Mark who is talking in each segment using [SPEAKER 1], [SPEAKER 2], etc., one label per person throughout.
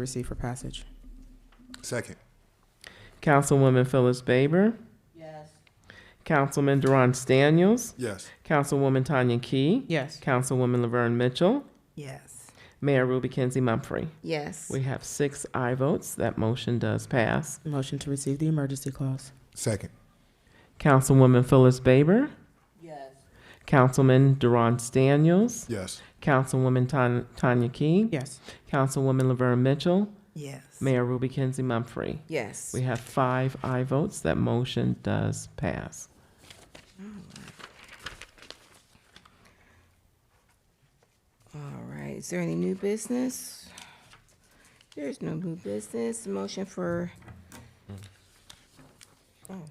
[SPEAKER 1] Receive for passage.
[SPEAKER 2] Second.
[SPEAKER 3] Councilwoman Phyllis Baber. Councilman Deron Daniels.
[SPEAKER 2] Yes.
[SPEAKER 3] Councilwoman Tanya Key.
[SPEAKER 1] Yes.
[SPEAKER 3] Councilwoman Laverne Mitchell.
[SPEAKER 4] Yes.
[SPEAKER 3] Mayor Ruby Kenzie Mumfree.
[SPEAKER 4] Yes.
[SPEAKER 3] We have six aye votes. That motion does pass.
[SPEAKER 1] Motion to receive the emergency clause.
[SPEAKER 2] Second.
[SPEAKER 3] Councilwoman Phyllis Baber. Councilman Deron Daniels.
[SPEAKER 2] Yes.
[SPEAKER 3] Councilwoman Tan- Tanya Key.
[SPEAKER 1] Yes.
[SPEAKER 3] Councilwoman Laverne Mitchell.
[SPEAKER 4] Yes.
[SPEAKER 3] Mayor Ruby Kenzie Mumfree.
[SPEAKER 4] Yes.
[SPEAKER 3] We have five aye votes. That motion does pass.
[SPEAKER 4] All right, is there any new business? There's no new business, motion for Oh.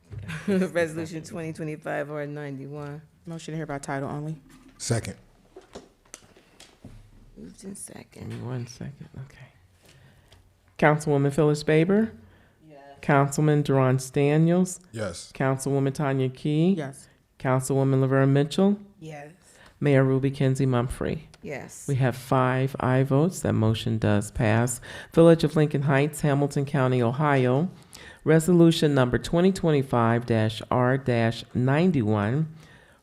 [SPEAKER 4] Resolution twenty twenty-five R ninety-one,
[SPEAKER 1] Motion to hear by title only.
[SPEAKER 2] Second.
[SPEAKER 4] moved in
[SPEAKER 3] Give
[SPEAKER 4] second.
[SPEAKER 3] me one second, okay. Councilwoman Phyllis Baber. Councilman Deron Daniels.
[SPEAKER 2] Yes.
[SPEAKER 3] Councilwoman Tanya Key.
[SPEAKER 1] Yes.
[SPEAKER 3] Councilwoman Laverne Mitchell.
[SPEAKER 4] Yes.
[SPEAKER 3] Mayor Ruby Kenzie Mumfree.
[SPEAKER 4] Yes.
[SPEAKER 3] We have five aye votes. That motion does pass. Village of Lincoln Heights, Hamilton County, Ohio. Resolution number 2025-R-91.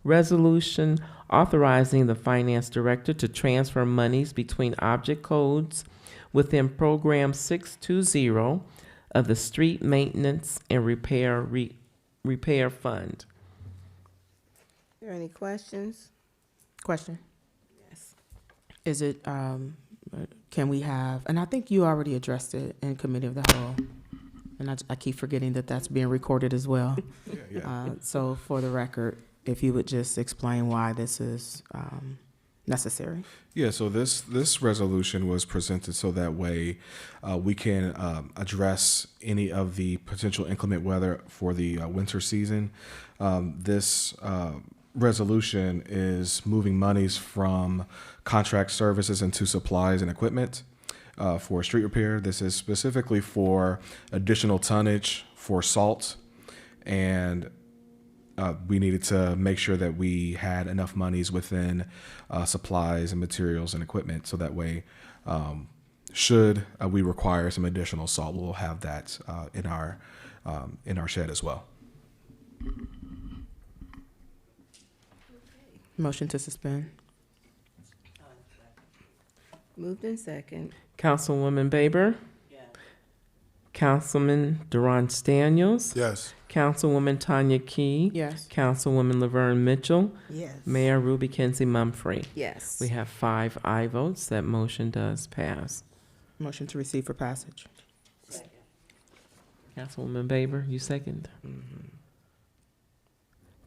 [SPEAKER 3] Resolution authorizing the finance director to transfer monies between object codes within Program 620 of the Street Maintenance and Repair Re- Repair Fund.
[SPEAKER 4] There any questions?
[SPEAKER 1] Question.
[SPEAKER 4] Yes.
[SPEAKER 1] Is it, um, uh, can we have, and I think you already addressed it in committee of the whole. And I, I keep forgetting that that's being recorded as well.
[SPEAKER 2] Yeah, yeah.
[SPEAKER 1] Uh, so for the record, if you would just explain why this is, um, necessary.
[SPEAKER 5] Yeah, so this this resolution was presented so that way uh, we can um, address any of the potential inclement weather for the uh, winter season. Um, this uh, resolution is moving monies from contract services into supplies and equipment uh, for street repair. This is specifically for additional tonnage for salt and uh, we needed to make sure that we had enough monies within uh, supplies and materials and equipment so that way um, should uh, we require some additional salt we'll have that uh, in our um, in our shed as well
[SPEAKER 1] Motion to suspend.
[SPEAKER 4] Moved in second.
[SPEAKER 3] Councilwoman Baber. Councilman Deron Daniels.
[SPEAKER 2] Yes.
[SPEAKER 3] Councilwoman Tanya Key.
[SPEAKER 1] Yes.
[SPEAKER 3] Councilwoman Laverne Mitchell.
[SPEAKER 4] Yes.
[SPEAKER 3] Mayor Ruby Kenzie Mumfree.
[SPEAKER 4] Yes.
[SPEAKER 3] We have five aye votes. That motion does pass.
[SPEAKER 1] Motion to receive for passage.
[SPEAKER 3] Councilwoman Baber, you second?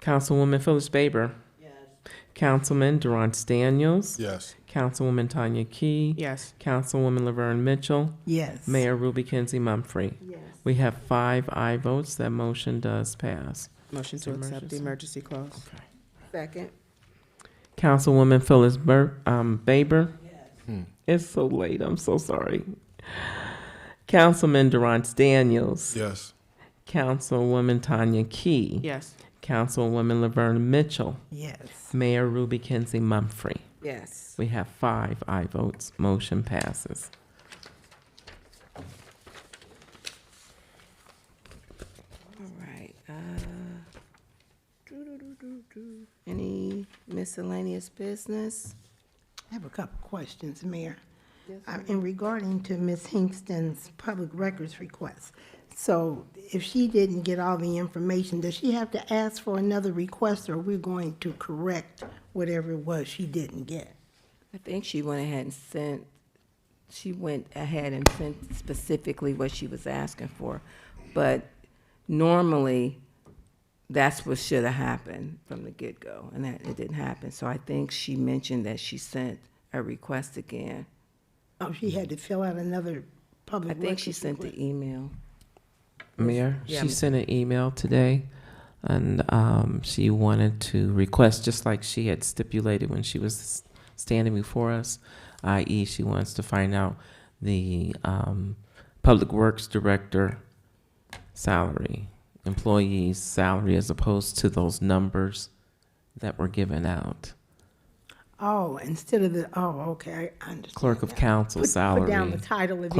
[SPEAKER 3] Councilwoman Phyllis Baber. Councilman Durant Daniels.
[SPEAKER 2] Yes.
[SPEAKER 3] Councilwoman Tanya Key.
[SPEAKER 1] Yes.
[SPEAKER 3] Councilwoman Laverne Mitchell.
[SPEAKER 4] Yes.
[SPEAKER 3] Mayor Ruby Kenzie Mumfree.
[SPEAKER 4] Yes.
[SPEAKER 3] We have five aye votes. That motion does pass.
[SPEAKER 1] Motion to
[SPEAKER 3] It's
[SPEAKER 1] accept the emergency clause.
[SPEAKER 4] Second.
[SPEAKER 3] Councilwoman Phyllis Bur- um, Baber.
[SPEAKER 2] Hmm.
[SPEAKER 3] It's so late. I'm so sorry. Councilman Durant Daniels.
[SPEAKER 2] Yes.
[SPEAKER 3] Councilwoman Tanya Key.
[SPEAKER 1] Yes.
[SPEAKER 3] Councilwoman Laverne Mitchell.
[SPEAKER 4] Yes.
[SPEAKER 3] Mayor Ruby Kenzie Mumfree.
[SPEAKER 4] Yes.
[SPEAKER 3] We have five aye votes. Motion passes.
[SPEAKER 4] All right, uh, doo-doo-doo-doo-doo. uh, any miscellaneous business?
[SPEAKER 6] I have a couple questions, Mayor.
[SPEAKER 4] Yes,
[SPEAKER 6] Uh, In regarding to Ms. Hingston's public records request, so if she didn't get all the information, does she have to ask for another request, or we're going to correct whatever it was she didn't get?
[SPEAKER 4] I think she went ahead and sent, she went ahead and sent specifically what she was asking for. But normally, that's what should have happened from the get-go, and that, it didn't happen. So I think she mentioned that she sent a request again.
[SPEAKER 6] Oh, she had to fill out another
[SPEAKER 4] I
[SPEAKER 6] public records request?
[SPEAKER 4] think she sent the email.
[SPEAKER 3] Mayor,
[SPEAKER 4] Yeah,
[SPEAKER 3] she
[SPEAKER 4] Ms.
[SPEAKER 3] sent an email today and um, she wanted to request, just like she had stipulated when she was standing before us, i.e., she wants to find out the um, Public Works Director salary, employee's salary, as opposed to those numbers that were given out.
[SPEAKER 6] Oh, instead of oh, the, oh, okay, I understand.
[SPEAKER 3] Clerk of
[SPEAKER 6] now.
[SPEAKER 3] Council
[SPEAKER 6] Put- Put down
[SPEAKER 3] salary.
[SPEAKER 6] the title of